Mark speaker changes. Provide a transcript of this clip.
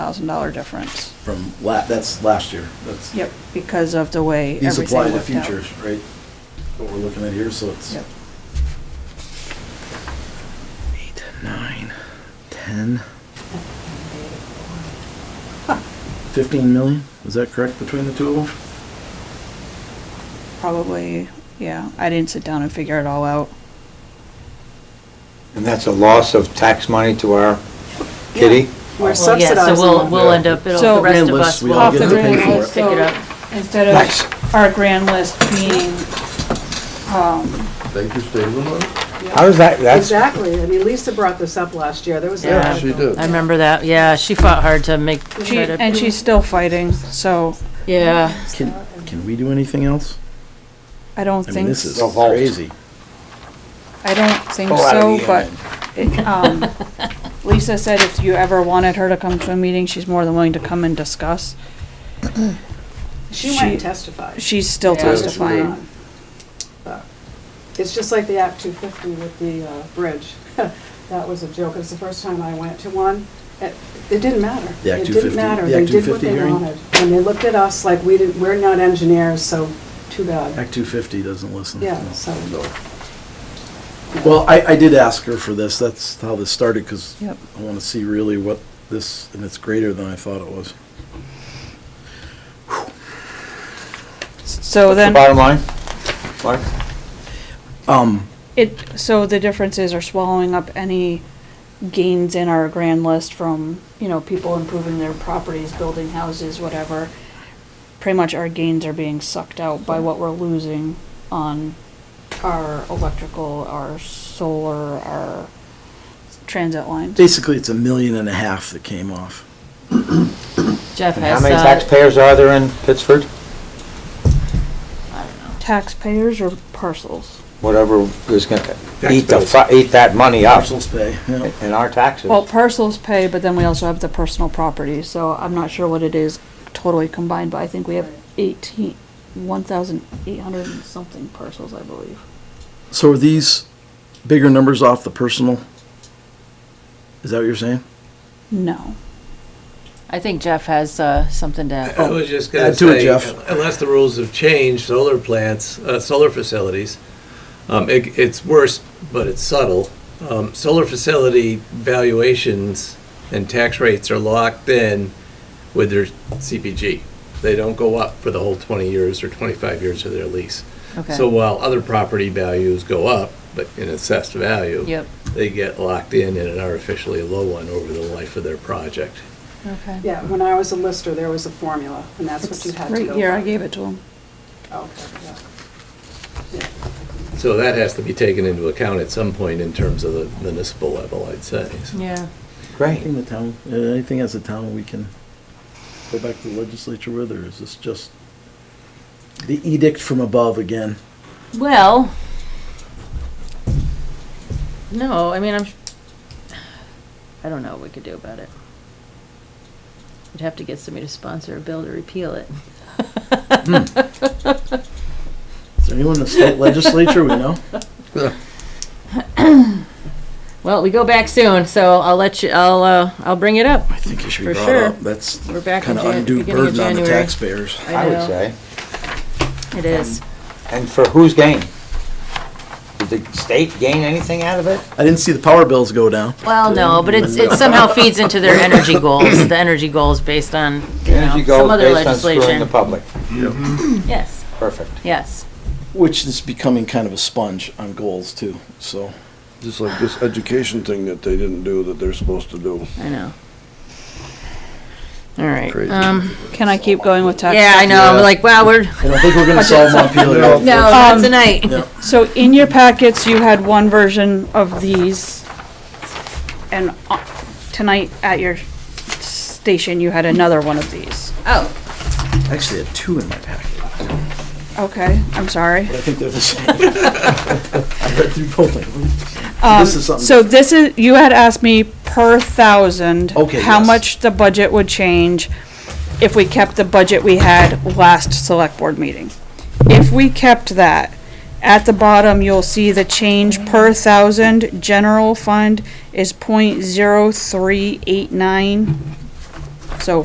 Speaker 1: thousand dollar difference.
Speaker 2: from la, that's last year, that's.
Speaker 1: Yep, because of the way
Speaker 2: These
Speaker 1: everything
Speaker 2: apply
Speaker 1: worked
Speaker 2: to
Speaker 1: out.
Speaker 2: futures, right? What we're looking at here, so it's.
Speaker 1: Yep.
Speaker 3: Eight, nine, ten,
Speaker 2: Fifteen million, is that correct between the two of them?
Speaker 1: Probably, yeah. I didn't sit down and figure it all out.
Speaker 4: And that's a loss of tax money to our kitty?
Speaker 5: We're
Speaker 6: Well, yeah,
Speaker 5: subsidizing
Speaker 6: So we'll,
Speaker 5: them.
Speaker 6: we'll end up, it'll,
Speaker 1: So-
Speaker 6: the rest of
Speaker 2: Endless,
Speaker 6: us
Speaker 2: we
Speaker 6: will.
Speaker 2: all
Speaker 1: Off
Speaker 2: get
Speaker 1: the
Speaker 2: to pay
Speaker 1: grand
Speaker 2: for it.
Speaker 1: list,
Speaker 6: Pick it
Speaker 1: so
Speaker 6: up.
Speaker 1: instead
Speaker 4: Nice.
Speaker 1: of our grand list being, um,
Speaker 7: Baker's Daily Loaf?
Speaker 4: How does that, that's,
Speaker 5: Exactly. I mean, Lisa brought this up last year. There was. a-
Speaker 6: Yeah,
Speaker 7: she did.
Speaker 6: I remember that, yeah, she fought hard to make,
Speaker 1: she,
Speaker 6: try to,
Speaker 1: and she's still fighting, so
Speaker 6: yeah,
Speaker 2: Can, can we do anything else?
Speaker 1: I don't
Speaker 2: I mean,
Speaker 1: think,
Speaker 2: this is
Speaker 1: s-
Speaker 4: The vault.
Speaker 2: crazy.
Speaker 1: I don't think
Speaker 4: Oh, out of
Speaker 1: so,
Speaker 4: the
Speaker 1: but, it, um, Lisa said if you ever wanted her to come to a meeting, she's more than willing to come and discuss.
Speaker 5: She went
Speaker 1: She-
Speaker 5: and testified.
Speaker 1: She's still
Speaker 5: Yeah, it's just
Speaker 1: testifying.
Speaker 5: gone. But It's just like the Act 250 with the uh, bridge. That was a joke. It's the first time I went to one. It it didn't matter.
Speaker 2: The Act
Speaker 5: It
Speaker 2: 250
Speaker 5: didn't matter.
Speaker 2: the
Speaker 5: They
Speaker 2: Act
Speaker 5: did what
Speaker 2: 250
Speaker 5: they
Speaker 2: hearing?
Speaker 5: wanted. And they looked at us like we didn't, we're not engineers, so too bad.
Speaker 2: Act two fifty doesn't listen.
Speaker 5: Yeah,
Speaker 2: No.
Speaker 5: so.
Speaker 2: Well, I, I did ask her for this, that's how this started, because
Speaker 1: Yep.
Speaker 2: I want to see really what this, and it's greater than I thought it was.
Speaker 1: So
Speaker 4: the
Speaker 1: then,
Speaker 4: bottom line? Mark?
Speaker 2: Um,
Speaker 1: it, so the differences are swallowing up any gains in our grand list from, you know, people improving their properties, building houses, whatever. Pretty much our gains are being sucked out by what we're losing on our electrical, our solar, our transit lines.
Speaker 2: basically, it's a million and a half that came off.
Speaker 6: Jeff
Speaker 4: And how
Speaker 6: has,
Speaker 4: many
Speaker 6: uh,
Speaker 4: taxpayers are there in Pittsford?
Speaker 1: Taxpayers or parcels?
Speaker 4: Whatever is gonna eat the, fu- eat that money up
Speaker 2: Parcels pay, yeah.
Speaker 4: in our taxes.
Speaker 1: Well, parcels pay, but then we also have the personal property, so I'm not sure what it is totally combined, but I think we have eighteen, one thousand eight hundred and something parcels, I believe.
Speaker 2: So are these bigger numbers off the personal? Is that what you're saying?
Speaker 1: No.
Speaker 6: I think Jeff has, uh, something to add.
Speaker 8: I
Speaker 4: Oh,
Speaker 8: was just gonna
Speaker 2: Add to Oh, it,
Speaker 8: say,
Speaker 2: Jeff.
Speaker 8: unless the rules have changed, solar plants, uh, solar facilities, um, it, it's worse, but it's subtle. Um, solar facility valuations and tax rates are locked in with their CPG. They don't go up for the whole twenty years or twenty-five years of their lease.
Speaker 6: Okay.
Speaker 8: So while other property values go up, but in assessed value.
Speaker 6: Yep.
Speaker 8: They get locked in at an artificially low one over the life of their project.
Speaker 6: Okay.
Speaker 5: Yeah, when I was a lister, there was a formula, and that's what you
Speaker 1: It's
Speaker 5: had to go by.
Speaker 1: Right here, I gave it to him.
Speaker 5: Okay, yeah.
Speaker 8: So that has to be taken into account at some point in terms of the municipal level, I'd say. So-
Speaker 6: Yeah.
Speaker 2: I
Speaker 4: Great.
Speaker 2: think the town, uh, anything as a town we can go back to the legislature with, or is this just the edict from above again?
Speaker 6: Well, no, I mean, I'm, I don't know what we could do about it. We'd have to get somebody to sponsor a bill to repeal it.
Speaker 2: Is there anyone in the state legislature we know?
Speaker 6: Well, we go back soon, so I'll let you, I'll, uh, I'll bring it up.
Speaker 2: I think you should be
Speaker 6: For
Speaker 2: brought
Speaker 6: sure.
Speaker 2: up. That's
Speaker 6: We're back in
Speaker 2: kind of
Speaker 6: Jan-
Speaker 2: undue
Speaker 6: beginning of
Speaker 2: burden on the
Speaker 6: January.
Speaker 2: taxpayers.
Speaker 4: I would say.
Speaker 6: It is.
Speaker 4: And for whose gain? Did the state gain anything out of it?
Speaker 2: I didn't see the power bills go down.
Speaker 6: Well, no, but it's, it somehow feeds into their energy goals, the energy goals based on, you know,
Speaker 4: Energy
Speaker 6: some
Speaker 4: goes
Speaker 6: other
Speaker 4: based on screwing the
Speaker 6: legislation.
Speaker 4: public.
Speaker 6: Yes,
Speaker 4: Perfect.
Speaker 6: yes.
Speaker 2: Which is becoming kind of a sponge on goals too, so.
Speaker 7: Just like this education thing that they didn't do that they're supposed to do.
Speaker 6: I know. All right.
Speaker 7: Crazy.
Speaker 6: Um,
Speaker 1: Can I keep going with tax?
Speaker 6: yeah, I know. I'm like, wow, we're Um,
Speaker 2: I don't think we're gonna solve Montpelier.
Speaker 6: no, not tonight.
Speaker 1: So in your packets, you had one version of these. And uh, tonight at your station, you had another one of these.
Speaker 6: Oh,
Speaker 2: Actually, I had two in my packet.
Speaker 1: Okay, I'm sorry.
Speaker 2: I think they're the same. I read through both of them.
Speaker 1: Um,
Speaker 2: This is something.
Speaker 1: So this is, you had asked me per thousand.
Speaker 2: Okay,
Speaker 1: How
Speaker 2: yes.
Speaker 1: much the budget would change if we kept the budget we had last select board meeting. If we kept that, at the bottom, you'll see the change per thousand, general fund is point zero three eight nine.